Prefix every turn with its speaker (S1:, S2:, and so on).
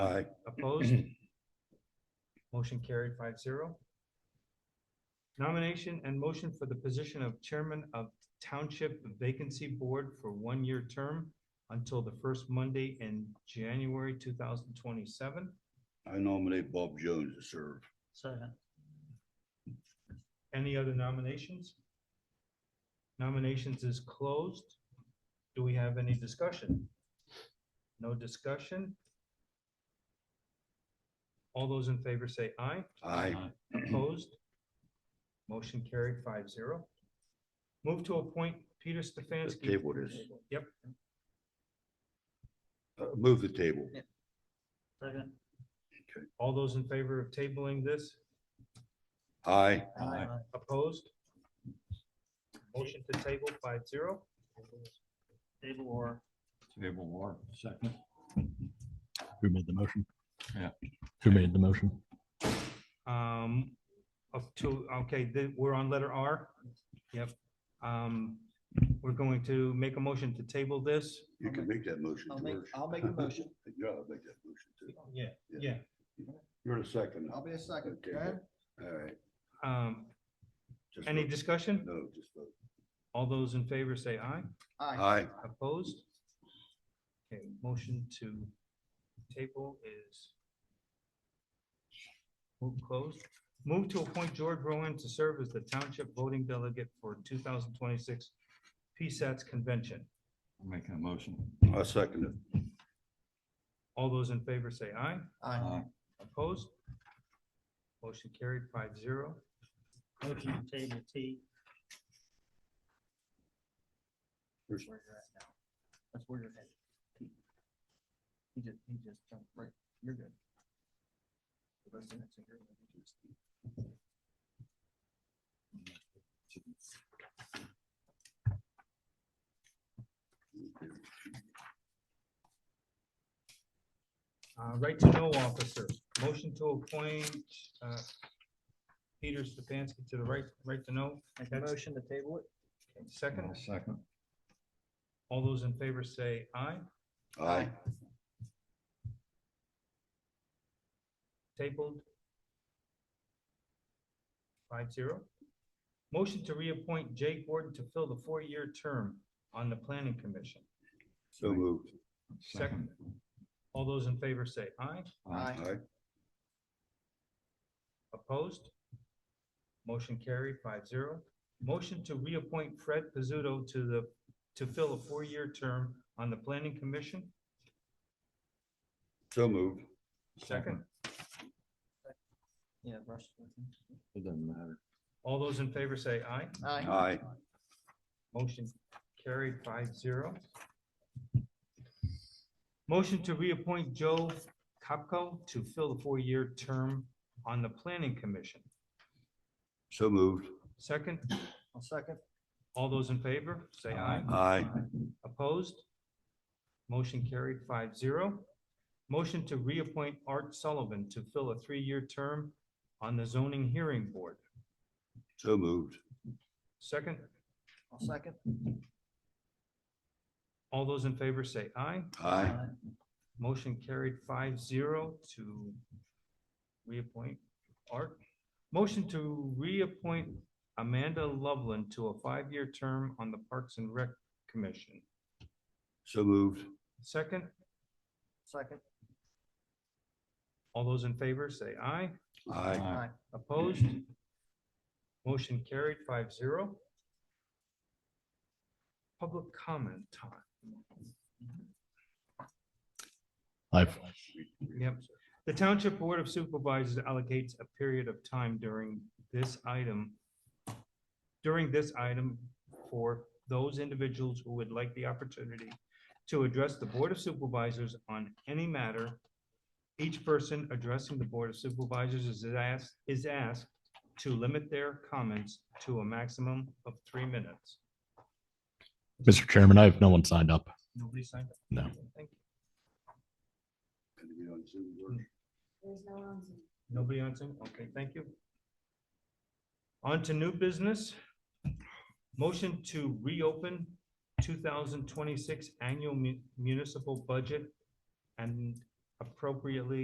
S1: Aye.
S2: Opposed? Motion carried 5-0. Nomination and motion for the position of Chairman of Township Vacancy Board for one-year term until the first Monday in January two thousand twenty-seven.
S1: I nominate Bob Jones to serve.
S3: Second.
S2: Any other nominations? Nominations is closed. Do we have any discussion? No discussion? All those in favor say aye.
S1: Aye.
S2: Opposed? Motion carried 5-0. Move to appoint Peter Stefanski.
S1: Table this.
S2: Yep,
S1: Uh, Move the table.
S3: Second.
S2: all those in favor of tabling this,
S1: Aye.
S2: opposed? Motion to table 5-0.
S3: Table or,
S4: Table war, second.
S5: Who made the motion?
S4: Yeah.
S5: Who made the motion?
S2: Um, of two, okay, then we're on letter R. Yep. Um, we're going to make a motion to table this.
S1: You can make that motion.
S6: I'll make,
S1: George.
S6: I'll make the motion.
S1: Yeah, I'll make that motion too.
S2: Yeah, yeah.
S1: yeah. You're the second.
S6: I'll be a second.
S1: Okay.
S6: Go ahead.
S1: All right.
S2: Um,
S1: Just
S2: any
S1: vote.
S2: discussion?
S1: No, just vote.
S2: All those in favor say aye.
S6: Aye.
S1: Aye.
S2: Opposed? Okay, motion to table is move closed. Move to appoint George Rowan to serve as the township voting delegate for two thousand twenty-six PSATS convention.
S4: I'm making a motion.
S1: I second it.
S2: All those in favor say aye.
S6: Aye.
S2: Opposed? Motion carried 5-0.
S3: motion to table T,
S1: There's-
S6: Where you're at now. That's where you're headed. He he just, he just jumped right. You're good. The rest of it's in your languages.
S2: Uh, right to know officer, motion to appoint, uh, Peter Stefanski to the right, right to know.
S6: Make a motion to table it.
S4: I'll
S2: Second,
S4: Second.
S2: all those in favor say aye.
S1: Aye.
S2: Tabled. Five zero. Motion to reappoint Jay Gordon to fill the four-year term on the planning commission.
S1: So moved.
S2: Second. All those in favor say aye.
S4: Aye.
S1: Aye.
S2: Opposed? Motion carried 5-0. Motion to reappoint Fred Pizzuto to the, to fill a four-year term on the planning commission.
S1: So moved.
S2: Second,
S6: Yeah, Russ.
S4: It doesn't matter.
S2: all those in favor say aye.
S1: Aye.
S2: Motion carried 5-0. Motion to reappoint Joe Kopko to fill the four-year term on the planning commission.
S1: So moved.
S2: Second,
S6: I'll second.
S2: all those in favor, say aye.
S1: Aye.
S2: Opposed? Motion carried 5-0. Motion to reappoint Art Sullivan to fill a three-year term on the zoning hearing board.
S1: So moved.
S2: Second,
S6: I'll second.
S2: all those in favor say aye.
S1: Aye.
S2: Motion carried 5-0 to reappoint Art. Motion to reappoint Amanda Loveland to a five-year term on the Parks and Rec Commission.
S1: So moved.
S2: Second,
S6: Second.
S2: all those in favor say aye.
S1: Aye.
S4: Aye.
S2: Opposed? Motion carried 5-0. Public comment time.
S5: I've,
S2: Yep. The Township Board of Supervisors allocates a period of time during this item, during this item for those individuals who would like the opportunity to address the Board of Supervisors on any matter. Each person addressing the Board of Supervisors is asked, is asked to limit their comments to a maximum of three minutes.
S5: Mr. Chairman, I have no one signed up.
S2: Nobody signed up?
S5: No.
S2: Thank you.
S1: Anybody on Zoom, George?
S7: There's no one on Zoom.
S2: Nobody on Zoom? Okay, thank you. On to new business. Motion to reopen two thousand twenty-six annual mu- municipal budget and appropriately